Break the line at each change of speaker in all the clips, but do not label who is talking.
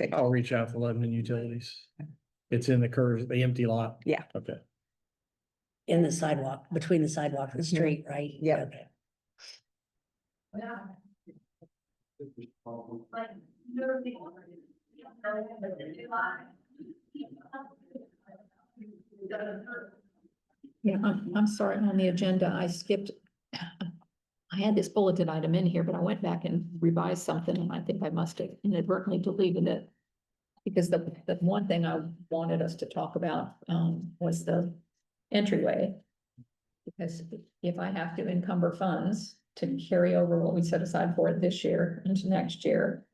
Okay.
I'll reach out to Lebanon Utilities. It's in the curve, the empty lot.
Yeah.
Okay.
in the sidewalk, between the sidewalk and the
Mhm.
street, right?
Yep.
Okay. Oh,
Yeah, I'm, I'm sorry, on the agenda, I skipped. I had this bulletin item in here, but I went back and revised something and I think I must have inadvertently deleted it. Because the, the one thing I wanted us to talk about, um, was the entryway. Because if I have to encumber funds to carry over what we set aside for it this year into next year.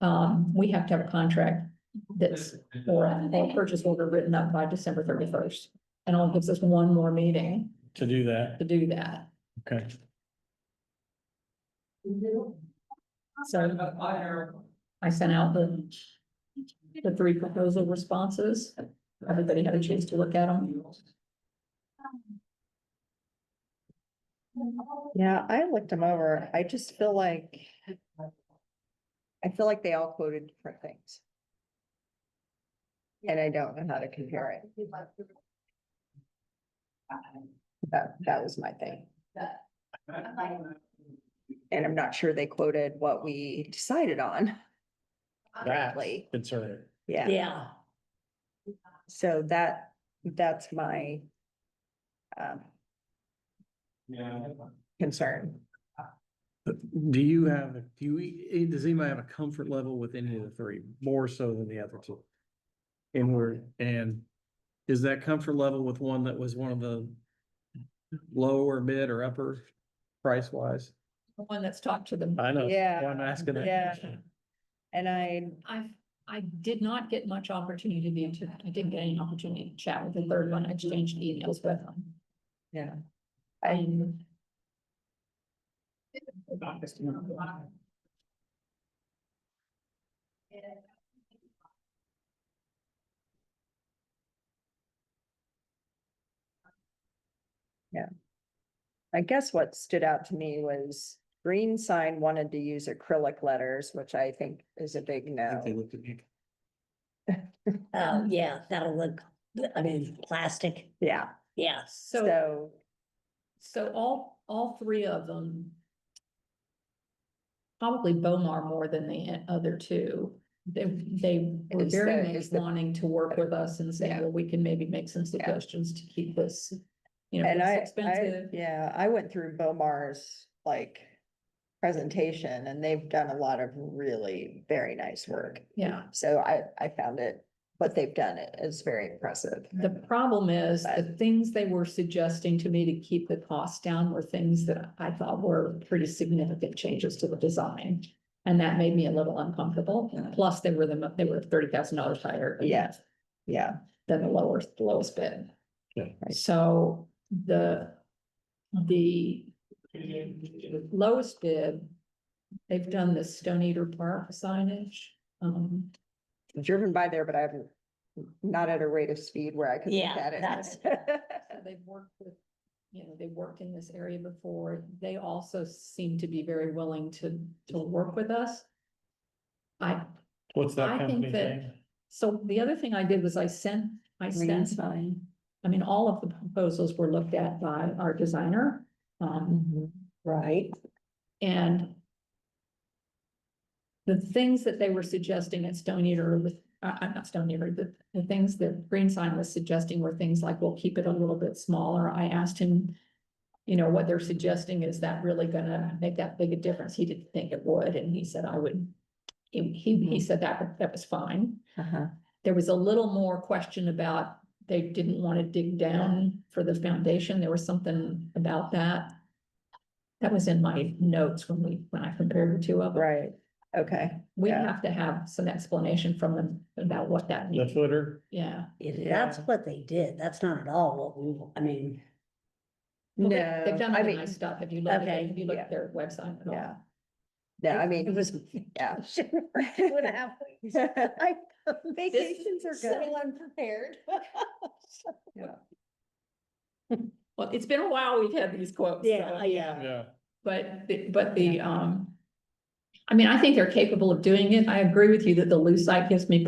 Um, we have to have a contract that's, or a purchase order written up by December thirty-first. And all it gives us one more meeting
To do that,
to do that.
okay.
So I sent out the, the three proposal responses. Everybody had a chance to look at them.
Yeah, I looked them over. I just feel like. I feel like they all quoted different things. And I don't know how to compare it. That, that was my thing. And I'm not sure they quoted what we decided on.
That's
Correctly.
concerning.
Yeah.
Yeah,
So that, that's my um, concern.
Do you have, do you, eh, does anybody have a comfort level with any of the three, more so than the other two? And we're, and is that comfort level with one that was one of the lower mid or upper price wise?
The one that's talked to them.
I know.
Yeah,
why I'm asking that.
yeah.
question.
And I,
I, I did not get much opportunity to, I didn't get any opportunity to chat with the third one. I exchanged emails with them.
yeah, I,
And
I guess what stood out to me was Green Sign wanted to use acrylic letters, which I think is a big
I think they
no.
looked at me.
um, yeah, that'll look, I mean, plastic,
Yeah,
yeah.
so,
so,
so all, all three of them. Probably Bomar more than the other two. They, they were
Is
very
the-
much
is the-
wanting to work with us and say,
Yeah.
well, we can maybe make some suggestions to keep this. You know,
and I,
it's
I,
expensive.
yeah, I went through Bomar's like presentation and they've done a lot of really very nice work.
Yeah.
So I, I found it, what they've done it is very impressive.
The problem is, the things they were suggesting to me to keep the cost down were things that I thought were pretty significant changes to the design. And that made me a little uncomfortable, plus they were the, mo- they were thirty thousand dollars higher. than-
Yeah. Yeah,
Than the lower, the lowest bid.
Yeah.
So the, the lowest bid, they've done the Stone Eater Park signage. Um,
driven by there, but I haven't, not at a rate of speed where I could look
Yeah,
at
that's-
it.
So uh, they've worked with, you know, they worked in this area before. They also seem to be very willing to, to work with us. I,
What's that
I think
company
that-
name?
so the other thing I did was I sent, I sent,
fine.
I mean, all of the proposals were looked at by our designer. Um,
Right.
and the things that they were suggesting at Stone Eater with, I, I'm not Stone Eater, the, the things that Green Sign was suggesting were things like, we'll keep it a little bit smaller. I asked him, you know, what they're suggesting, is that really gonna make that big a difference? He didn't think it would, and he said I would. He, he he said that, that was fine. There was a little more question about, they didn't want to dig down for the foundation. There was something about that. That was in my notes when we, when I compared the two of them.
Right, okay,
We
yeah.
have to have some explanation from them about what that
The
means.
footer?
Yeah.
If that's
Yeah.
what they did, that's not at all what we, wa- I mean,
Well, they-
no,
They've done
I
other
mean,
nice stuff. Have you looked at,
Okay,
it? have you looked
yeah.
at their website at all?
yeah. No, I
it
mean,
was.
yeah.
Two and a half weeks.
I- Vacations are good.
So unprepared.
Well, it's been a
oh,
while we've had these quotes. so-
Yeah, yeah.
Yeah.
But, the- but the, um, I mean, I think they're capable of doing it. I agree with you that the loose site gives me